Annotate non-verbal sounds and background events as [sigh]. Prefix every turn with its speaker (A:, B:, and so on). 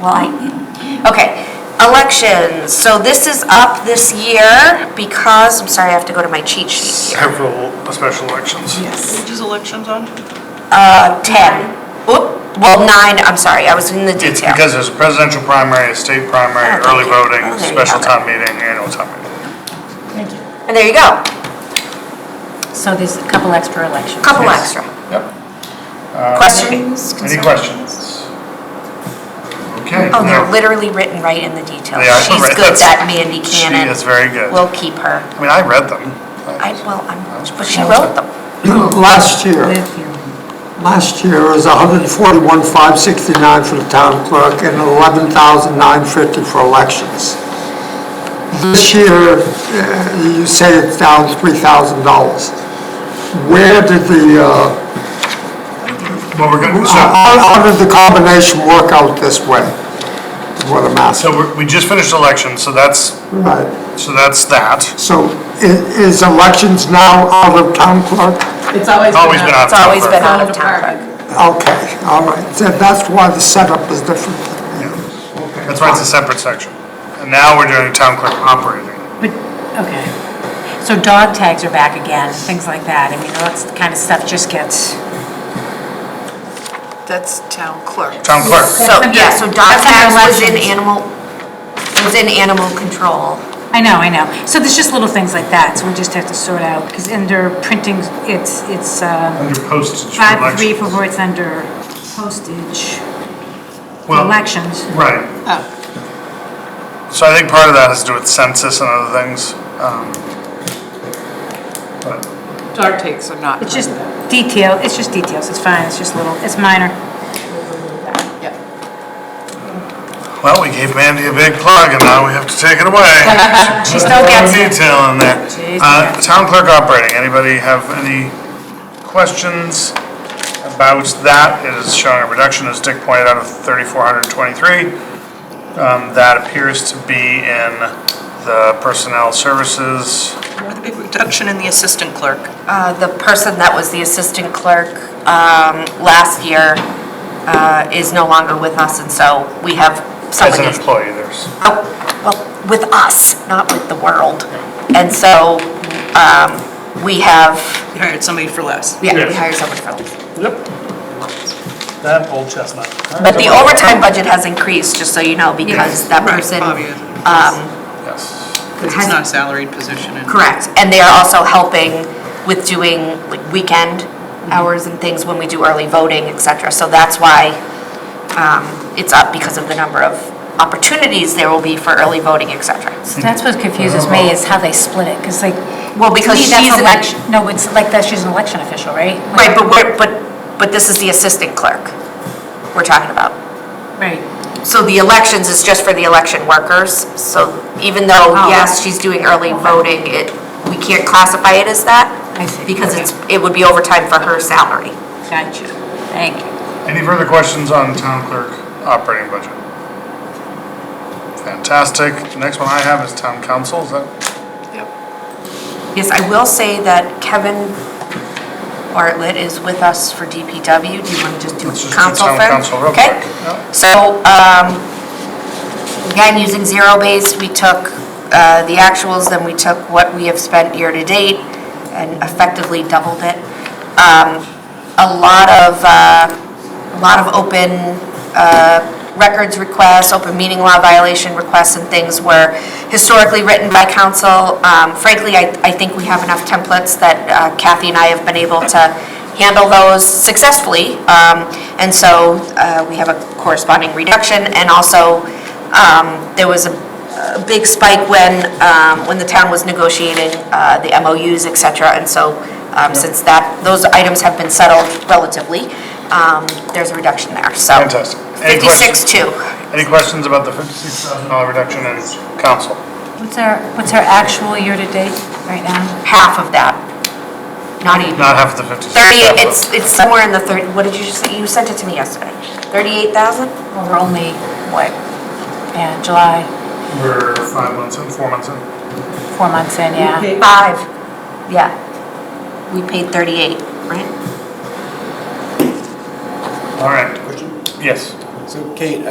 A: Well, I, okay, elections, so this is up this year because, I'm sorry, I have to go to my cheat sheet here.
B: several special elections.
A: Yes.
C: Which is elections on?
A: Uh, 10, oop, well, nine, I'm sorry, I was in the
B: It's
A: detail.
B: because there's a presidential primary, a state primary,
A: Oh,
B: early
A: thank you.
B: voting,
A: Oh, there you
B: special
A: go.
B: town meeting, annual town meeting.
A: And there you go,
D: So there's a couple extra elections.
A: couple
B: Yes.
A: extra.
B: Yep. Uh,
A: Questions?
B: Any questions? Okay.
A: Oh,
B: no.
A: they're literally written right in the detail.
B: They are,
A: She's
B: right,
A: good,
B: that's-
A: that Mandy
B: She
A: Cannon.
B: is very good.
A: We'll keep her.
B: I mean, I read them.
A: I, well,
B: That's
A: I'm, but
B: pretty
A: she
B: awesome.
A: wrote them.
E: [clears throat] Last year,
D: Live here.
E: last year was 141,569 for the town clerk and 11,950 for elections. This year, uh, you say it's down $3,000. Where did the, uh,
B: Well, we're gonna, so,
E: how how did the combination work out this way? Is What I'm asking.
B: so we're- we just finished elections, so that's,
E: Right.
B: so that's that.
E: So i- is elections now out of town clerk?
F: It's always.
B: Always been out.
A: It's always been out
B: October.
A: of town clerk.
E: Okay, all right. So That's why the setup is different.
B: That's why it's a separate section. And now we're doing town clerk operating.
D: But, okay. So dog tags are back again, things like that. I mean, that's the kind of stuff just gets.
C: That's town clerk.
B: Town clerk.
A: So, yeah, so dog
D: That's
A: tags
D: under
A: was in
D: elections.
A: animal, was in animal control.
D: I know, I know. So there's just little things like that, so we just have to sort out, because under printing, it's, it's, uh,
B: Under postage for
D: five, three,
B: elections.
D: for where it's under postage, for
B: Well,
D: elections.
B: Right. So I think part of that has to do with census and other things. um, But
F: Dog takes are not.
D: It's just detail, it's just details, it's fine, it's just little, it's
B: [laughs]
D: minor.
F: Yeah.
B: Well, we gave Mandy a big plug and now we have to take it away.
D: She still gets it.
B: Detail in there.
D: She still
B: Uh,
D: gets
B: Town clerk operating, anybody have any questions about that? It is showing a reduction, as Dick pointed out, of 3,423. Um, That appears to be in the personnel services.
C: Or the big reduction in the assistant clerk.
A: Uh, The person that was the assistant clerk um, last year uh, is no longer with us, and so we have
B: As an
A: somebody,
B: employee, there's,
A: Oh, well, with us, not with the world. And so um, we have,
C: You hired somebody for less.
A: yeah, we
B: Yes.
A: hire someone for this.
G: That old chestnut.
A: But the overtime budget has increased, just so you know, because that
C: Right,
A: person,
C: Bobby is-
A: um,
B: yes.
C: Because it's not a salaried position. and-
A: correct, and they are also helping with doing like weekend
D: Mm-hmm.
A: hours and things when we do early voting, et cetera. So that's why um, it's up because of the number of opportunities there will be for early voting, et cetera.
D: That's what confuses me, is how they split it, because like.
A: Well, because
D: to me, that's
A: she's an-
D: elec- No, it's like that, she's an election official, right?
A: Right,
D: Like-
A: but we're, but, but this is the assistant clerk we're talking about.
D: Right,
A: So the elections is just for the election workers, so even though,
D: Oh,
A: yes,
D: right.
A: she's doing early voting, it, we can't classify it as that
D: I see.
A: because it's, it would be overtime for her salary.
D: gotcha, thank you.
B: Any further questions on town clerk operating budget? Fantastic. Next one I have is town council, is that?
A: Yes, I will say that Kevin Bartlett is with us for DPW. Do you want to just do
B: Let's just do
A: council
B: town
A: first?
B: council real
A: Okay.
B: quick. Yep.
A: So, um, again, using zero base, we took uh, the actuals, then we took what we have spent year-to-date and effectively doubled it. Um, A lot of, uh, a lot of open uh, records requests, open meeting law violation requests and things were historically written by council. Um, Frankly, I, I think we have enough templates that uh, Kathy and I have been able to handle those successfully. Um, And so uh, we have a corresponding reduction. And also, um, there was a a big spike when, um, when the town was negotiating uh, the MOUs, et cetera. And so um, since that, those items have been settled relatively, um, there's a reduction there, so.
B: Fantastic. Any questions?
A: 56.2.
B: Any questions about the fifty-six thousand dollar reduction in council?
D: What's our, what's our actual year-to-date right now?
A: half of that. Not even.
B: Not half of the fifty-six.
A: 38, it's, it's somewhere in the 30, what did you say? You sent it to me yesterday. 38,000?
D: Well, we're only, what, yeah, July,
B: We're five months in, four months in.
D: four months in, yeah.
A: Five. Yeah. We paid 38, right?
B: All right. Yes.
G: So Kate,